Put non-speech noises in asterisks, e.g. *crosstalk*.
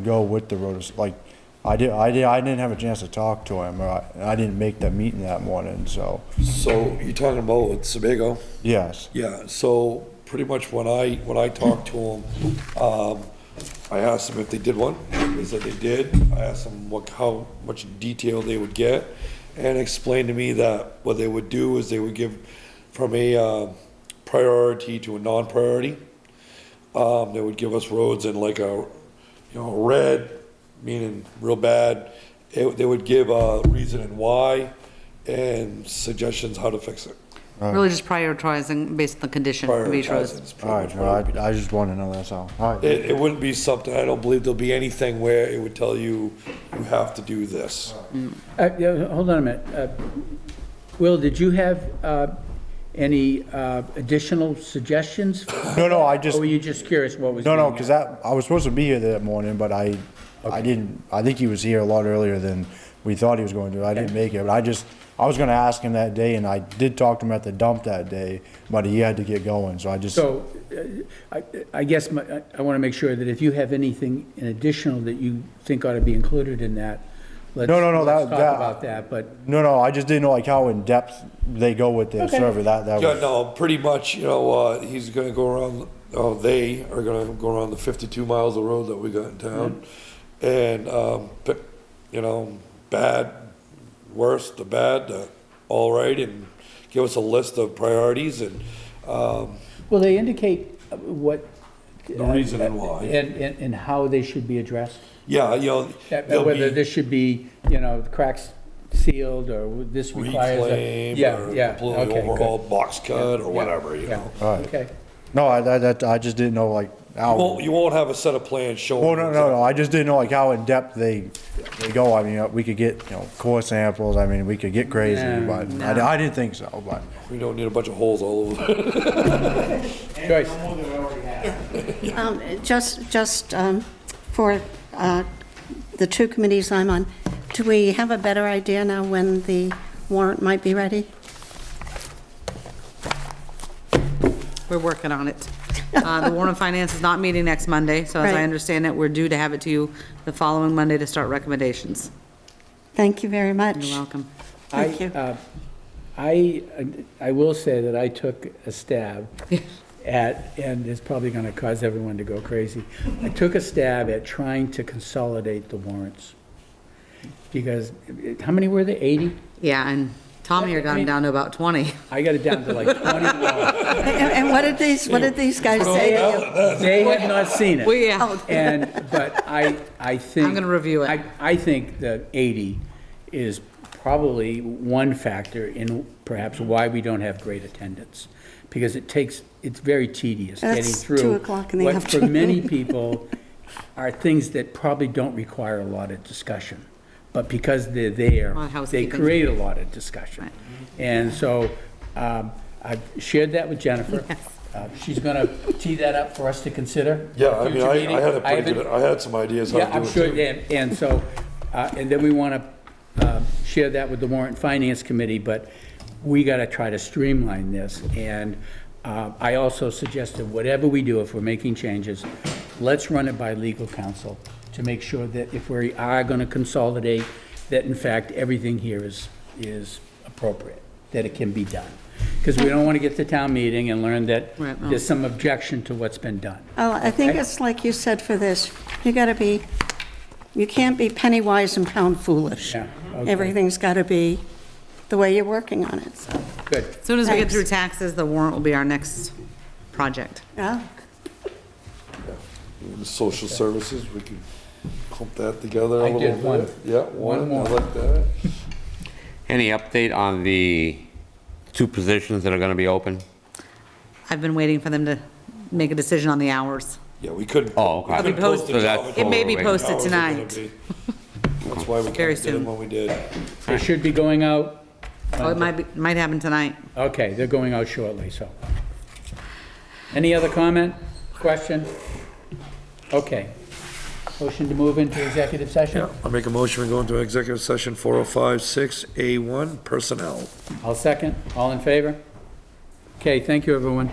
go with the road, like, I did, I did, I didn't have a chance to talk to him, or I, I didn't make that meeting that morning, so, So you're talking about with Sebago? yes, Yeah, so pretty much when I, when I talked to them, um, I asked them if they did one. They said they did. I asked them what, how much detail they would get and explained to me that what they would do is they would give from a, um, priority to a non-priority. Um, they would give us roads in like a, you know, red, meaning real bad. It- They would give a reason and why and suggestions how to fix it. Really just prioritizing based on the condition of each road. Prioritizing is pretty alright, much what it would be. I, I just wanna know, that's all, alright, It, it wouldn't be something, I don't believe there'll be anything where it would tell you, you have to do this. Uh, yeah, Hold on a minute. Uh, Will, did you have uh, any uh, additional suggestions? no, no, I just, Or were you just curious what was? no, no, being cause asked? that, I was supposed to be here that morning, but I, I didn't, I think he was here a lot earlier than we thought he was going to, I didn't make it, but I just, I was gonna ask him that day, and I did talk to him at the dump that day, but he had to get going, so I just, So uh, I I guess my- I- I want to make sure that if you have anything in additional that you think ought to be included in that, let's. No, no, no, that- let's that- Talk about that, but no, no, I just didn't know like how in-depth they go with their Okay. survey, that, that Yeah, was, no, pretty much, you know, uh, he's gonna go around, oh, they are gonna go around the fifty-two miles of road that we got in town. And, um, pick, you know, bad, worst, the bad, the all right, and give us a list of priorities and, um, will they indicate uh, what? The reason and why. And, and and how they should be addressed? yeah, you know. That- there'll Whether be- this should be, you know, cracks sealed or this requires. a- reclaim Yeah, or yeah, completely okay, good. overhauled, box cut or whatever, you Yeah, know. Alright. Okay. no, I, that, that, I just didn't know like how. You won't, you won't have a set of plans showing. Well, no, no, no, I just didn't know like how in-depth they, they go, I mean, uh, we could get, you know, core samples, I mean, we could get crazy, No, but I, I didn't think so, but. We don't need a bunch of holes all over. Joyce? Um, Just, just um, for uh, the two committees I'm on, do we have a better idea now when the warrant might be ready? We're working on *laughs* it. Uh, The Warren and Finance is not meeting next Monday, so as I Right. understand it, we're due to have it to you the following Monday to start recommendations. Thank you very much. You're welcome. Thank I, you. uh, I, I will say that I took a *laughs* stab at, and it's probably going to cause everyone to go crazy. I took a stab at trying to consolidate the warrants. Because, it- how many were there? 80? Yeah, and Tom here got him down to about 20. I got it down to *laughs* like 21. And and what did these, what did these guys say to you? They had not seen *laughs* it. Well, yeah, Oh, And, but I, I think. gonna review it. I, I think the 80 is probably one factor in perhaps why we don't have great attendance. Because it takes, it's very tedious getting That's through. 2 o'clock in the What afternoon. for many people are things that probably don't require a lot of discussion. But because they're there, Well, they housekeeping. create a lot of discussion. And so um, I've shared that with Jennifer. Uh, She's going to tee that up for us to consider. *laughs* Yeah, I mean, Future I, meeting. I had a haven't- pretty good, I had some ideas how yeah, to I'm do sure, it too. and, and so, uh, and then we want to share that with the warrant finance committee, but we got to try to streamline this. And uh, I also suggested, whatever we do, if we're making changes, let's run it by legal counsel to make sure that if we are going to consolidate, that in fact, everything here is, is appropriate, that it can be done. Because we don't want to get to town meeting and learn that Right, no. there's some objection to what's been done. Oh, I think it's like you said for this, you gotta be, you can't be penny wise and pound foolish. Yeah, okay. Everything's gotta be the way you're working on it, so, Good. As soon as we get Thanks. through taxes, the warrant will be our next project. yeah. In Social services, we can clump that together a I little did one. bit. Yeah, One one, more. I like that. Any update on the two positions that are going to be open? I've been waiting for them to make a decision on the hours. Yeah, we couldn't. Oh, okay. we It'll be couldn't post the posted. job So that's until It may be Totally. the posted hours are gonna tonight. be. That's why we Very kinda did it soon. when we did. They should be going out Oh, it might, be- might happen tonight. Okay, they're going out shortly, so. Any other comment, question? Okay. Motion to move into executive session? I make a motion, we go into executive session four oh five six A one personnel. I'll second. All in favor? Okay, thank you, everyone.